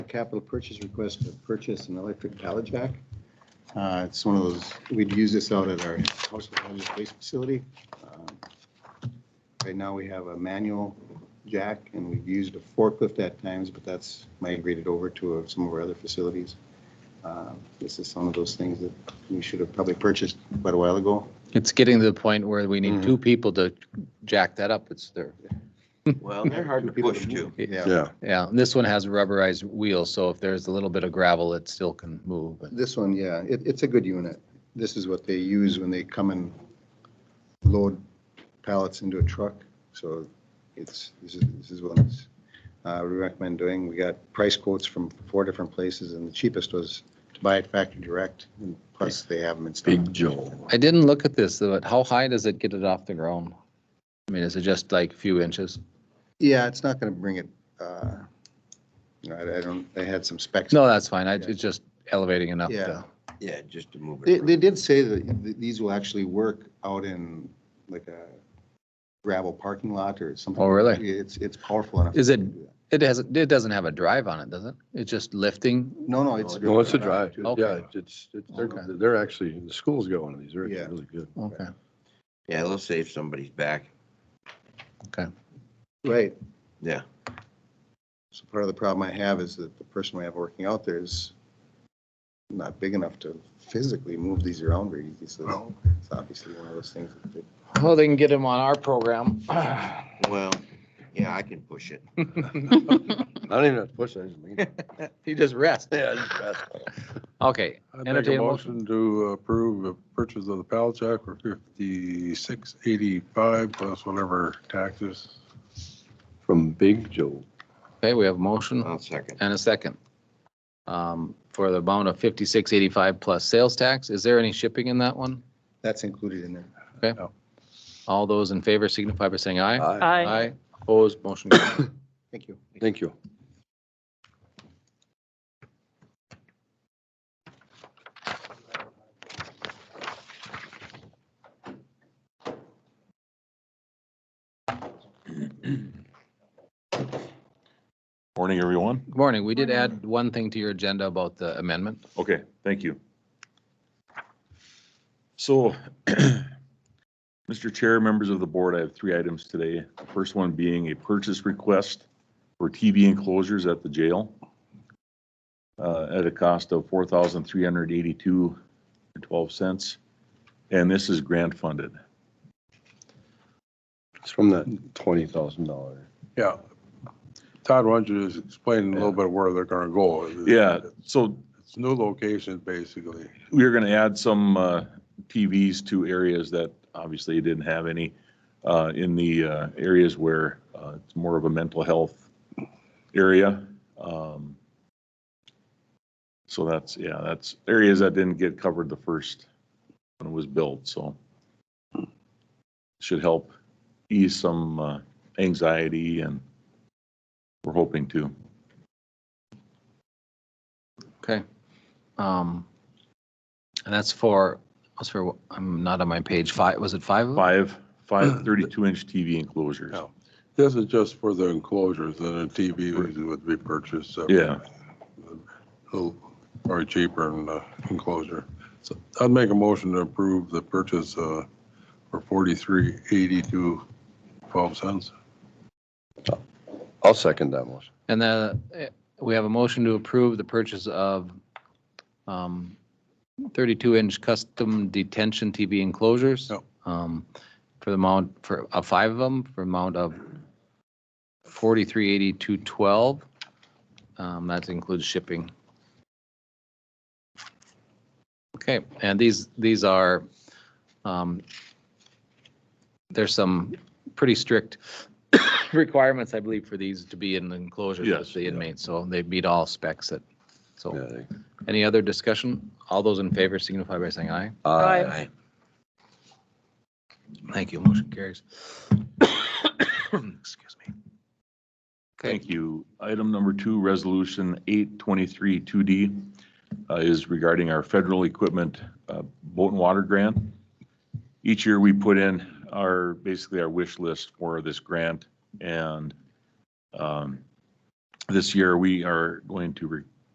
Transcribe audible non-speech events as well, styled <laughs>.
capital purchase request to purchase an electric pallet jack. Uh, It's one of those, we'd use this out at our household hazardous waste facility. Uh, Right now, we have a manual jack, and we've used a forklift at times, but that's migrated over to uh, some of our other facilities. Uh, This is some of those things that we should have probably purchased quite a while ago. It's getting to the point where we need Mhm. two people to jack that up. It's there. Well, they're hard to People push too. move. Yeah, Yeah, Yeah, and this one has rubberized wheels, so if there's a little bit of gravel, it still can move. And this one, yeah, it, it's a good unit. This is what they use when they come and load pallets into a truck. So it's, this is, this is what it's, uh, we recommend doing. We got price quotes from four different places, and the cheapest was to buy it factory direct, and plus they have them in stock. Big Joe. I didn't look at this, though. How high does it get it off the ground? I mean, is it just like a few inches? Yeah, it's not gonna bring it, uh, no, I I don't, they had some specs. No, that's fine. I, it's just elevating enough Yeah. to, Yeah, just to move They, it. they around. did say that th- these will actually work out in like a gravel parking lot or something. Oh, really? It's, it's powerful enough. Is it- it hasn't, it doesn't have a drive on it, does it? It's just lifting. No, no, it's. No, it's a drive. Okay. Yeah, it's, it's, they're, Okay. they're actually, the schools got one of these. They're actually Yeah. really good. Okay. Yeah, it'll save somebody's back. Right. Yeah. So part of the problem I have is that the person we have working out there is not big enough to physically move these around very easily. So it's obviously one of those things. that they- Well, they can get him on our program. <clears throat> Well, yeah, I can push it. I don't even have to push it. <laughs> I just lean. He just rests. Yeah, I just grasp it. Okay, I'd make entertain a a motion. motion to approve the purchase of the pallet jack for fifty-six eighty-five plus whatever taxes. From Big Joe. Okay, we have a motion. I'll second. and a second. Um, For the amount of fifty-six eighty-five plus sales tax, is there any shipping in that one? That's included in there. All those in favor signify by saying aye. Aye. Opposed, motion carried. Thank you. Thank you. Morning, everyone. Good Morning, we did add one thing to your agenda about the amendment. Okay, thank you. So, <clears throat> Mr. Chair, members of the board, I have three items today. The First one being a purchase request for TV enclosures at the jail uh, at a cost of four thousand three hundred eighty-two and twelve cents. And this is grant funded. It's from that twenty thousand dollar. Yeah. Todd, why don't you just explain a little bit where they're gonna go? Yeah, so It's new locations, basically. we are going to add some uh, TVs to areas that obviously didn't have any, uh, in the uh, areas where uh, it's more of a mental health area. Um, So that's, yeah, that's areas that didn't get covered the first when it was built, so should help ease some uh, anxiety and we're hoping to. Okay. Um, And that's for, that's for, I'm not on my page, five, was it five? of them? Five, five 32-inch TV enclosures. Yeah. This is just for the enclosures and the TV would be purchased. uh, Yeah. a little- Probably cheaper in the enclosure. So I'd make a motion to approve the purchase uh, for forty-three eighty-two twelve cents. I'll second that motion. And then uh, we have a motion to approve the purchase of um, 32-inch custom detention TV enclosures. Yep. um, For the amount, for uh, five of them, for amount of 438212. Um, That includes shipping. Okay, and these, these are, um, there's some pretty strict <coughs> requirements, I believe, for these to be in the enclosures Yes, with the yeah. inmates. So they meet all specs that, so. Yeah. Any other discussion? All those in favor signify by saying aye. Aye. Thank you. Motion carries. <coughs> Excuse me. Okay, Thank you. Item number two, Resolution 823 2D uh, is regarding our federal equipment uh, boat and water grant. Each year, we put in our, basically our wish list for this grant, and um, This year, we are going to re-